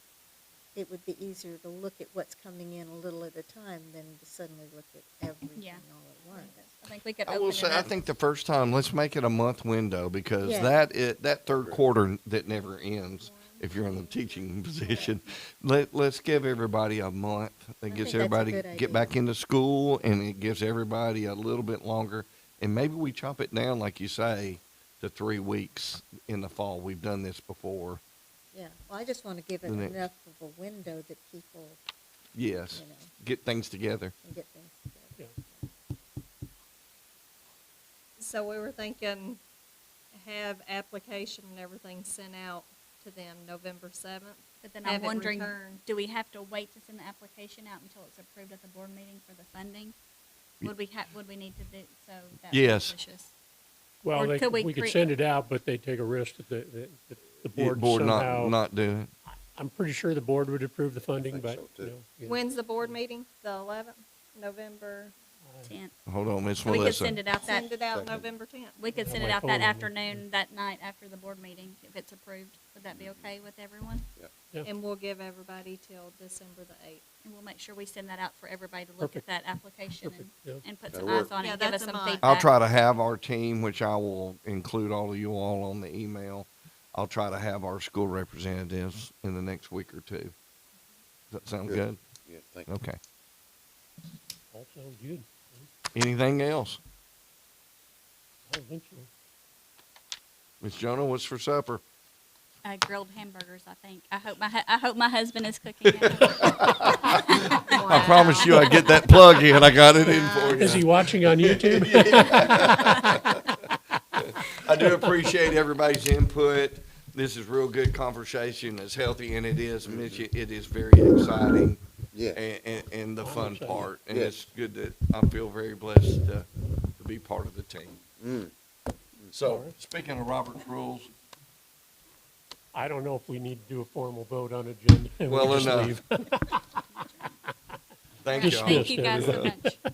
it would be easier to look at what's coming in a little at a time than to suddenly look at everything all at once. I think we could I open will it say, I up. think the first time, let's make it a month window because Yeah. that it, that third quarter that never ends. If you're in the teaching position, let let's give everybody a month. It I think gives that's a everybody good idea. get back into school, and it gives everybody a little bit longer. And maybe we chop it down, like you say, to three weeks in the fall. We've done this before. Yeah, well, I just want to give it The next- enough of a window that people, you Yes, know, get things together. can get things together. So we were thinking have application and everything sent out to them November seventh. But then I'm Have it wondering, returned. do we have to wait to send the application out until it's approved at the board meeting for the funding? Ye- Would we ha- would we need to do, so that Yes. pushes? Or Well, they, could we we could create- send it out, but they take a risk that the, that- that the board board somehow. not not do it. I'm pretty sure the board would approve the funding, but, you know. yeah. When's the board meeting? The eleventh, November, Tenth. Hold on, Miss We could Melissa. send it out that, send it out November tenth. we could Oh, Yeah, send it my out that phone. afternoon, that night after the board meeting, if it's approved. Would that be Mm-hmm. okay with everyone? And we'll give everybody till December the eighth. And we'll make sure we send that out for everybody to look at that Perfect. application Perfect, yeah. and, and put That'll some eyes work. on it Yeah, and give us that's a some month. feedback. I'll try to have our team, which I will include all of you all on the email. I'll try to have our school representatives in the next week or two. Does that sound good? Good. Yeah, thank you. Okay. All sounds good. Anything else? I don't think so. Miss Jonah, what's for supper? Uh, grilled hamburgers, I think. I hope my, hu- I hope my husband is cooking. it. I promise you I get that plug in. I got it in for Is he you. watching on YouTube? I do appreciate everybody's input. This is real good conversation, as healthy and it is, Mitch, it it is very exciting. Yeah, and, and, and Oh, the fun Appreciate it. part. And Yeah. it's good that I feel very blessed to, to be part of the team. So, speaking of Robert's rules, I don't know if we need to do a formal vote on agenda. We Well uh, just enough. leave. thank Just y'all. this. Thank you guys so much.